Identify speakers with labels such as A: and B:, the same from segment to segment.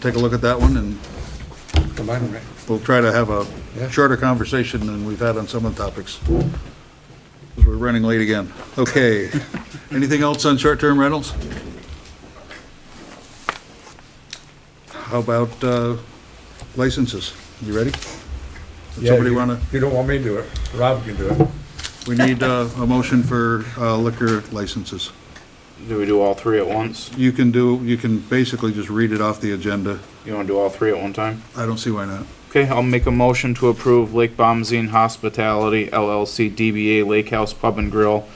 A: take a look at that one, and
B: Combine them, right?
A: we'll try to have a
B: Yeah.
A: shorter conversation than we've had on some of the topics. 'Cause We're running late again. Okay. Anything else on short-term rentals? How about uh, licenses? You ready? Does
B: Yeah,
A: somebody
B: you-
A: want to,
B: You don't want me to do it, Rob can do it.
A: we need uh, a motion for uh, liquor licenses.
C: Do we do all three at once?
A: You can do, you can basically just read it off the agenda.
C: You want to do all three at one time?
A: I don't see why not.
C: Okay, I'll make a motion to approve Lake Bombazine Hospitality LLC DBA Lake House Pub and Grill.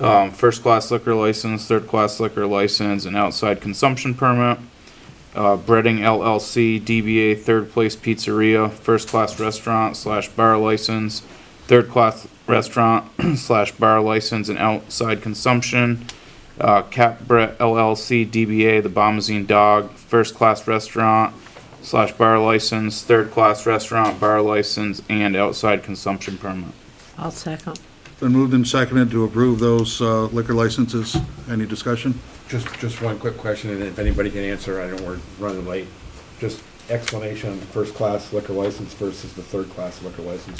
C: Um, first class liquor license, third class liquor license, and outside consumption permit. Uh, Breading LLC DBA Third Place Pizzeria, first class restaurant slash bar license, third class restaurant slash bar license and outside consumption. Uh, Cap Brett LLC DBA The Bombazine Dog, first class restaurant, slash bar license, third class restaurant, bar license, and outside consumption permit.
D: I'll second.
A: Been moved and seconded to approve those uh, liquor licenses. Any discussion?
B: Just, just one quick question, and if anybody can answer, I know we're running late. Just explanation, first class liquor license versus the third class liquor license.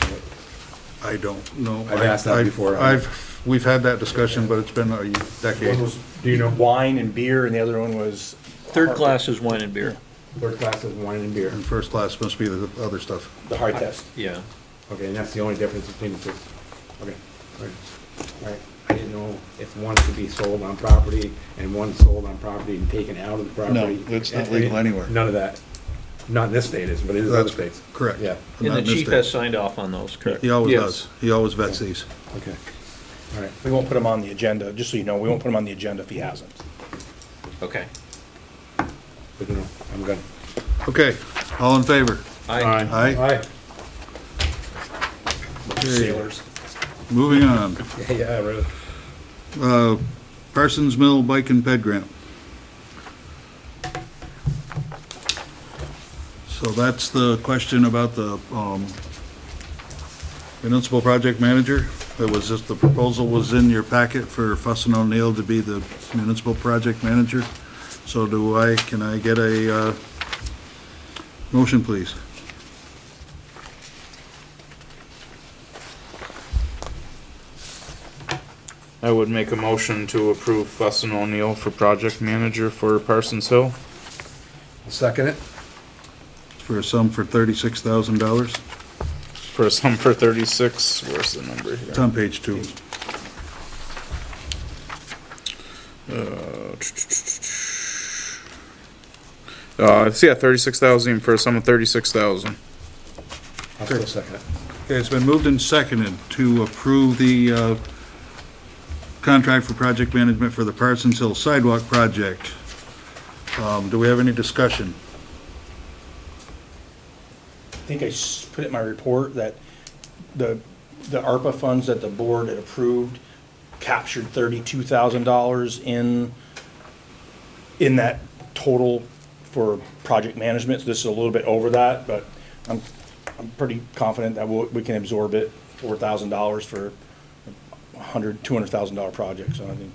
A: I don't know.
B: I've asked that
A: I've-
B: before.
A: I've, we've had that discussion, but it's been a decade.
B: One was, do you know,
E: Wine and beer, and the other one was,
F: Third class is wine and beer.
B: third class is wine and beer,
A: And first class must be the other stuff.
B: the hard test.
F: Yeah.
B: Okay, and that's the only difference between the two. Okay, all right. All right. I didn't know if one could be sold on property and one sold on property and taken out of the property.
A: No, it's not
B: And-
A: legal anywhere.
B: None of that. Not in this state, is, but it is other
A: That's
B: states.
A: Correct.
B: Yeah,
A: I'm
F: And
A: not
F: the chief
A: mistaken.
F: has signed off on those, correct?
A: He always
C: Yes.
A: does. He always vets these.
B: okay. All right.
E: we won't put him on the agenda, just so you know, we won't put him on the agenda if he hasn't.
F: Okay.
B: Good to know. I'm good.
A: Okay, all in favor?
F: I,
A: Aye.
B: Aye.
A: Okay,
E: Sailors.
A: moving on.
B: Yeah, really.
A: Uh, Parsons Mill Bike and Ped Grant. So that's the question about the um, municipal project manager. It was just, the proposal was in your packet for Fuss and O'Neill to be the municipal project manager. So do I, can I get a uh, motion, please?
C: I would make a motion to approve Fuss and O'Neill for project manager for Parsons Hill.
B: Second it?
A: For a sum for $36,000.
C: For a sum for thirty-six, where's the number
A: It's
C: here?
A: on page two.
C: Uh, it's, yeah, thirty-six thousand for a sum of thirty-six thousand.
B: I'll still second it.
A: Okay, it's been moved and seconded to approve the uh, contract for project management for the Parsons Hill Sidewalk Project. Um, Do we have any discussion?
E: I think I s- put it in my report that the, the ARPA funds that the board had approved captured thirty-two thousand dollars in, in that total for project management. So This is a little bit over that, but I'm, I'm pretty confident that we'll, we can absorb it, four thousand dollars for a hundred, two hundred thousand dollar project, so I think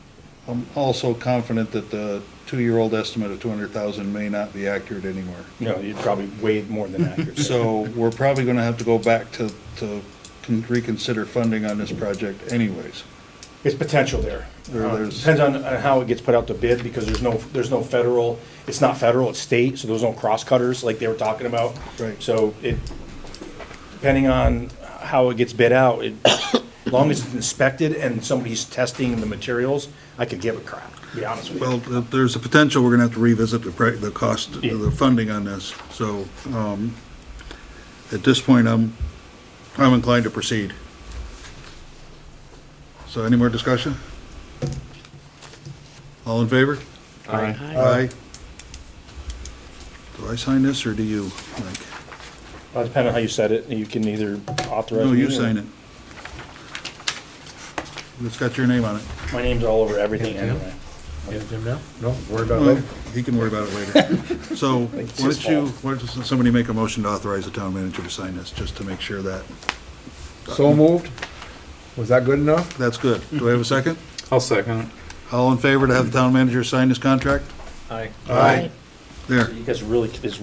A: I'm also confident that the two-year-old estimate of 200,000 may not be accurate anymore.
E: you know, you'd probably way more than accurate.
A: So we're probably going to have to go back to to con- reconsider funding on this project anyways.
E: It's potential there.
A: There-
E: Uh,
A: there's-
E: Depends on on how it gets put out to bid, because there's no, there's no federal, it's not federal, it's state, so there's no cross-cutters like they were talking about.
A: Right.
E: So it, depending on how it gets bid out, it, as long as it's inspected and somebody's testing the materials, I could give a crap, to be honest with you.
A: Well, if there's a potential, we're going to have to revisit the, pri- the cost,
E: Yeah.
A: the funding on this. So um, at this point, I'm, I'm inclined to proceed. So any more discussion? All in favor?
C: Aye.
A: Aye. Do I sign this or do you, Mike?
E: Uh, Depending on how you set it, you can either authorize.
A: No,
E: me
A: you
E: or-
A: sign it. It's got your name on it.
E: My name's all over everything anyway.
B: Get it, Jim, now? No, worry about it
A: Well,
B: later.
A: He can worry about it later. So, why
E: Mm. It's his
A: don't you, why don't somebody make a motion to authorize the town manager to sign this, just to make sure that,
B: So moved? Was that good enough?
A: that's good. Do I have a second?
C: I'll second it.
A: All in favor to have the town manager sign this contract?
F: I.
E: Aye.
A: There.
E: You guys really, it's